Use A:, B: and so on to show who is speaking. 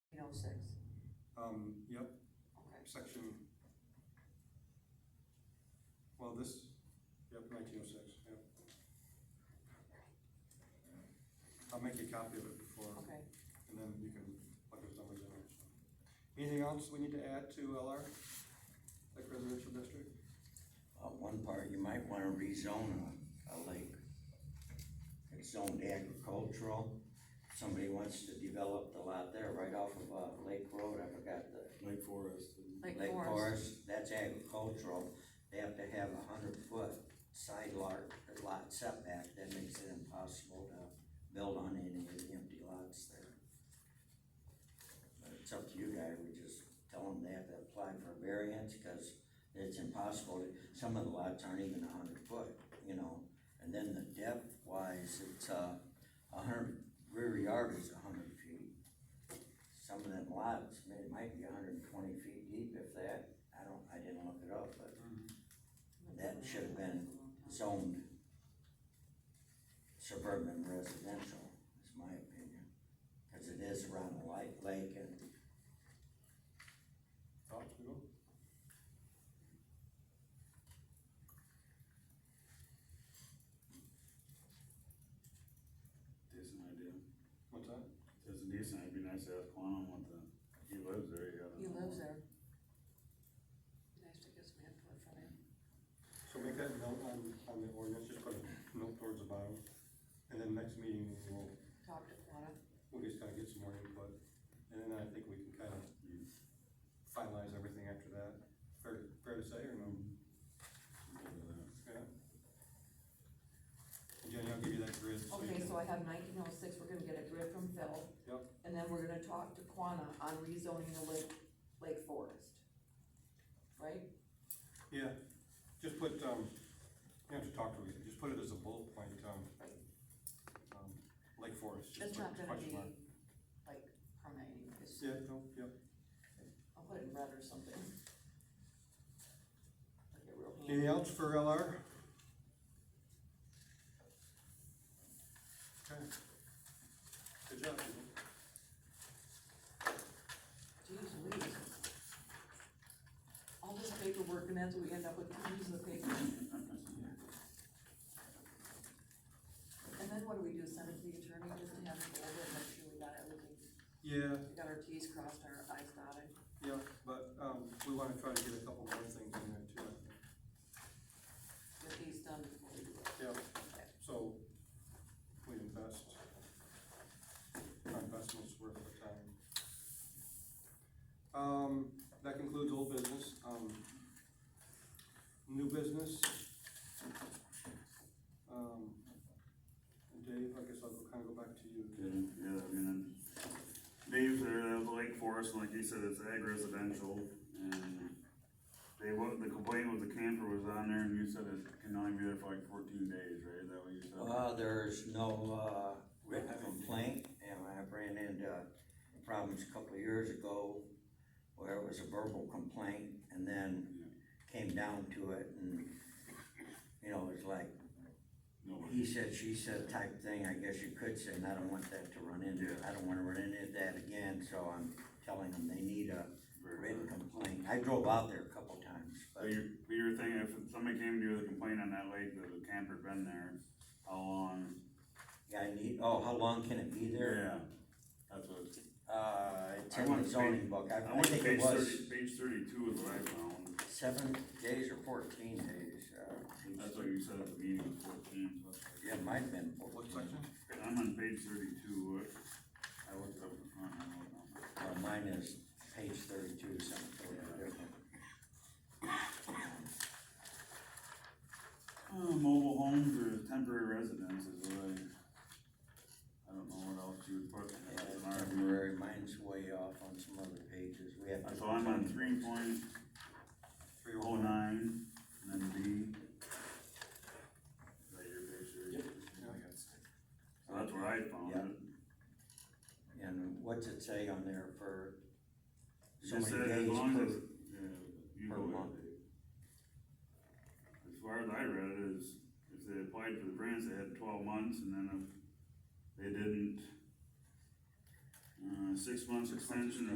A: Um, yep,
B: oh Okay,
A: section. Well, this, yep, nineteen oh six, yep. I'll make a copy of it before,
B: okay.
A: and then you can plug those numbers in. Anything else we need to add to LR, like residential district?
C: Uh, one part, you might wanna rezone a, a lake. It's zoned agricultural, somebody wants to develop the lot there right off of, uh, Lake Road, I forgot the.
D: Lake Forest. and-
B: Lake Forest,
C: That's agricultural, they have to have a hundred foot side lot, lot setback, that makes it impossible to build on any of the empty lots there. But it's up to you guys, we just tell them they have to apply for variance, cause it's impossible, to- some of the lots aren't even a hundred foot, you know? And then the depth wise, it's uh a hundred, rear yard is a hundred feet. Some of them lots, I mean, it might be hundred and twenty feet deep if that, I don't, I didn't look it up, but
A: Mm-hmm.
C: That should have been zoned suburban residential, is my opinion. Cause it is around a light lake and
A: Thoughts, Bill?
D: There's an idea.
A: What's that?
D: There's a decent, it'd be nice to ask Quan what the, he lives there, you gotta.
B: He lives there. Nice to get some input from him.
A: So make that note on, on the ordinance, just put a note towards the bottom, and then next meeting, we'll,
B: Talk to Quanah.
A: we'll just kinda get some more input, and then I think we can kinda finalize everything after that, fair, fair to say, or no? Yeah. Jenny, I'll give you that grid, so you
B: Okay,
A: can,
B: so I have nineteen oh six, we're gonna get a grid from Phil.
A: Yep.
B: And then we're gonna talk to Quanah on rezoning the lake, Lake Forest. Right?
A: yeah, just put, um, you have to talk to me, just put it as a bullet point, um, um, Lake Forest, just
B: It's
A: put
B: not gonna
A: question
B: be
A: mark.
B: like permitting, it's,
A: Yeah, no, yep,
B: I'll put it in red or something. Like a real hand.
A: anything else for LR? Okay. Good job, people.
B: Jeez Louise. All this paperwork and that's what we end up with, using the paper. And then what do we do, send it to the attorney just to have it go over and make sure we got everything,
A: Yeah,
B: we got our Ts crossed, our Is dotted?
A: yeah, but, um, we wanna try to get a couple more things in there too, I think.
B: Get these done before we do it.
A: Yep,
B: Okay.
A: so we invest, our investment's worth the time. Um, that concludes old business, um, new business. Um, Dave, I guess I'll go- kinda go back to you.
D: Okay, yeah, I mean, Dave's there, uh, the Lake Forest, and like you said, it's ag residential, and they, what, the complaint was the camper was on there, and you said it can only be there for like fourteen days, right, is that what you said?
C: Well, uh, there's no, uh, written complaint, and I ran into problems a couple of years ago where it was a verbal complaint, and then came down to it, and, you know, it was like,
D: Nobody.
C: he said, she said type thing, I guess you could say, and I don't want that to run into, I don't wanna run into that again, so I'm telling them they need a written complaint. I drove out there a couple times,
D: But
C: but
D: you, but you were thinking if somebody came to you with a complaint on that lake, that the camper been there, how long?
C: yeah, I need, oh, how long can it be there?
D: Yeah, that's what.
C: Uh, it's
D: I
C: in
D: went
C: the
D: to
C: zoning
D: page-
C: book,
D: I
C: I, I
D: went to
C: think it
D: page
C: was.
D: thirty, page thirty-two is what I found,
C: Seven days or fourteen days, uh,
D: that's what you said at the meeting, was fourteen, so that's-
C: yeah, it might have been
A: What
C: fourteen.
A: section?
D: I'm on page thirty-two, what- I looked up in front, I don't know.
C: Uh, mine is page thirty-two, something totally different.
D: Uh, mobile homes or temporary residence is what I, I don't know what else you would put
C: Yeah,
D: as an
C: it's
D: RV.
C: temporary, mine's way off on some other pages, we have.
D: So I'm on three point
A: Three
D: oh
A: oh nine.
D: nine, and then B. Is that your picture?
A: Yep.
D: So that's where I found
C: Yeah.
D: it.
C: And what's it say on there for
D: It
C: so
D: just
C: many
D: said as
C: days
D: long
C: per,
D: as, yeah, you
C: per
D: go ahead.
C: month.
D: As far as I read it is, if they applied for the grants, they had twelve months, and then if they didn't, uh, six months extension,